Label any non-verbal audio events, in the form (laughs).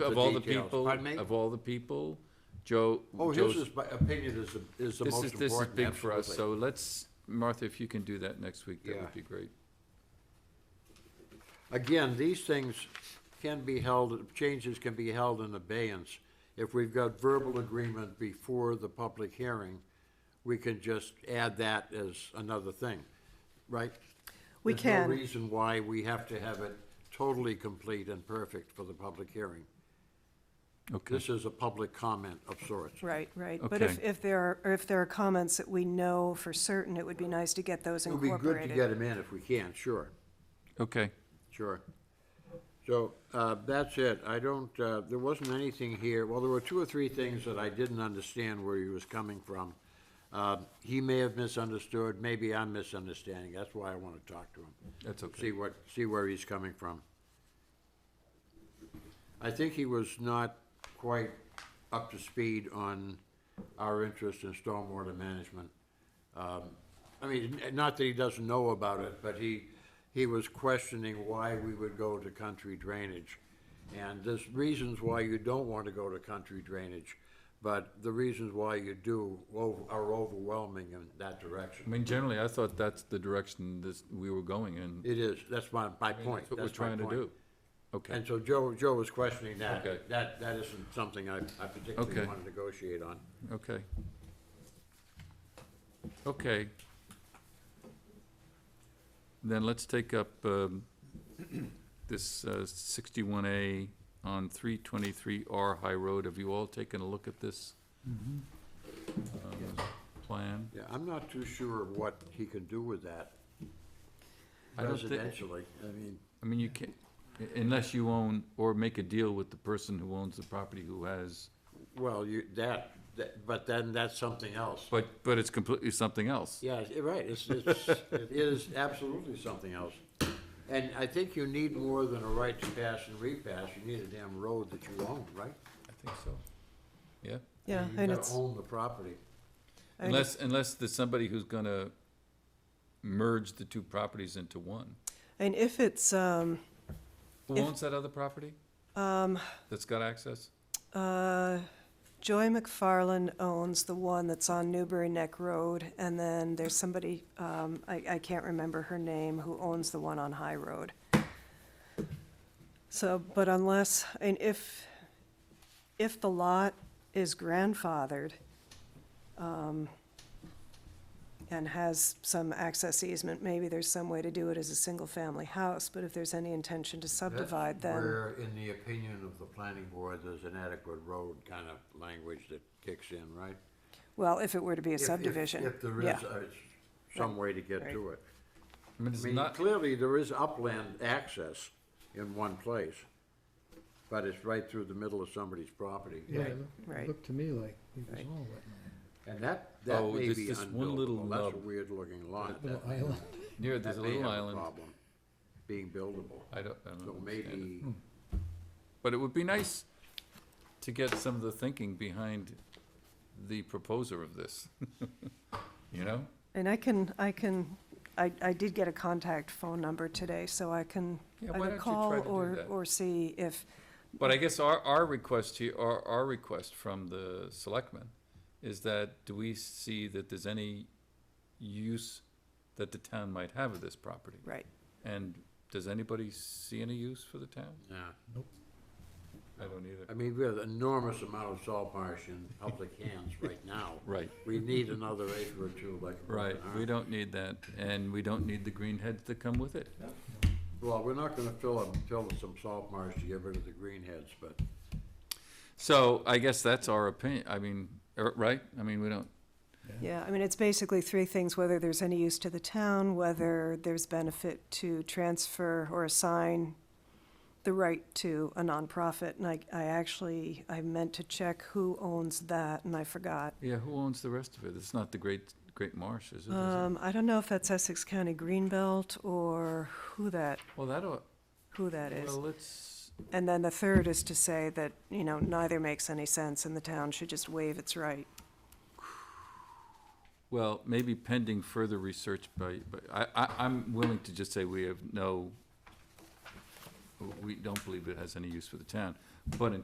Of all the details. people, Pardon me? of all the people, Joe. Oh, his Joe's- is, my opinion is, the- is the This most is, important. this is big for us, absolutely. so let's, Martha, if you can do that next week, that Yeah. would be great. Again, these things can be held, changes can be held in abeyance. If we've got verbal agreement before the public hearing, we can just add that as another thing, right? We There's can. no reason why we have to have it totally complete and perfect for the public hearing. Okay. This is a public comment of sorts. Right, right. But if, Okay. if there are, or if there are comments that we know for certain, it would be nice to get those It would be good to incorporated. get them in if we can, sure. Okay, Sure. So, uh, that's it. I don't, uh, there wasn't anything here, well, there were two or three things that I didn't understand where he was coming from. Uh, He may have misunderstood, maybe I'm misunderstanding, that's why I wanna talk to him. That's okay. See what, see where he's coming from. I think he was not quite up to speed on our interest in stormwater management. Um, I mean, n- not that he doesn't know about it, but he, he was questioning why we would go to country drainage. And there's reasons why you don't want to go to country drainage, but the reasons why you do o- are overwhelming in that I direction. mean, generally, I thought that's the direction this, we were going in. It is, that's my, my point. That's what we're my trying to point. do. Okay, And so Joe, Joe was questioning that. Okay. That, that isn't something I, I particularly Okay. want to negotiate on. okay. Okay. Then let's take up, um, this, uh, sixty-one A on three twenty-three R High Road. Have you all taken a look at this? um, Plan? Yeah, I'm not too sure of what he can do with that I don't thi- residentially. I mean, I mean, you can't, unless you own, or make a deal with the person who owns the property who has, well, you, that, that- but then that's something else. but, but it's completely something else. Yeah, you're right, it's, it's, it is absolutely something else. And I think you need more than a right to pass and repass, you need a damn road that you own, right? I think so. Yeah, Yeah, You and gotta it's, own the property. and unless, unless there's somebody who's gonna merge the two properties into one. and if it's, um, Who If- owns that other property? Um. That's got access? uh, Joy McFarland owns the one that's on Newbury Neck Road, and then there's somebody, um, I, I can't remember her name, who owns the one on High Road. So, but unless, and if, if the lot is grandfathered, um, and has some access easement, maybe there's some way to do it as a single-family house, but if there's any intention to That's subdivide, then, Where, in the opinion of the planning board, there's an adequate road kind of language that kicks in, right? well, if it were to be a If- if- subdivision, yeah. If there is, uh, some way to get to it. I mean, I it's mean, not, clearly, there is upland access in one place, but it's right through the middle of somebody's property. Yeah, it looked- Right. it looked to me like it was Right. all wetland. And that, that Oh, may there's be this one unbuildable. little That's a nub. weird-looking lot. Little That- island. near, that there's a may little have island. problem Being buildable. I don't, I don't So understand it. maybe, But it would be nice to get some of the thinking behind the proposer of this, (laughs) you know? And I can, I can, I, I did get a contact phone number today, so I can Yeah, why don't either you call try to do or, that? or see if, But I guess our, our request here, our, our request from the selectmen is that, do we see that there's any use that the town might have of this property? right, And does anybody see any use for the town? yeah. I don't either. I mean, we have an enormous amount of salt marsh in public hands right now. Right. We need another acre or two like. a Right, broken we arm. don't need that, and we don't need the green heads that come with it. Well, we're not gonna fill them, fill some salt marsh to get rid of the greenheads, but So I guess that's our opinion, I mean, er, right? I mean, we don't, yeah, I mean, it's basically three things, whether there's any use to the town, whether there's benefit to transfer or assign the right to a nonprofit, and I, I actually, I meant to check who owns that, and I forgot. yeah, who owns the rest of it? It's not the Great, Great Marsh, is it? Is it? Um, I don't know if that's Essex County Greenbelt or who that, Well, that'll, who that is. well, let's, And then the third is to say that, you know, neither makes any sense and the town should just waive its right. Well, maybe pending further research by, but I, I, I'm willing to just say we have no, we don't believe it has any use for the town. But in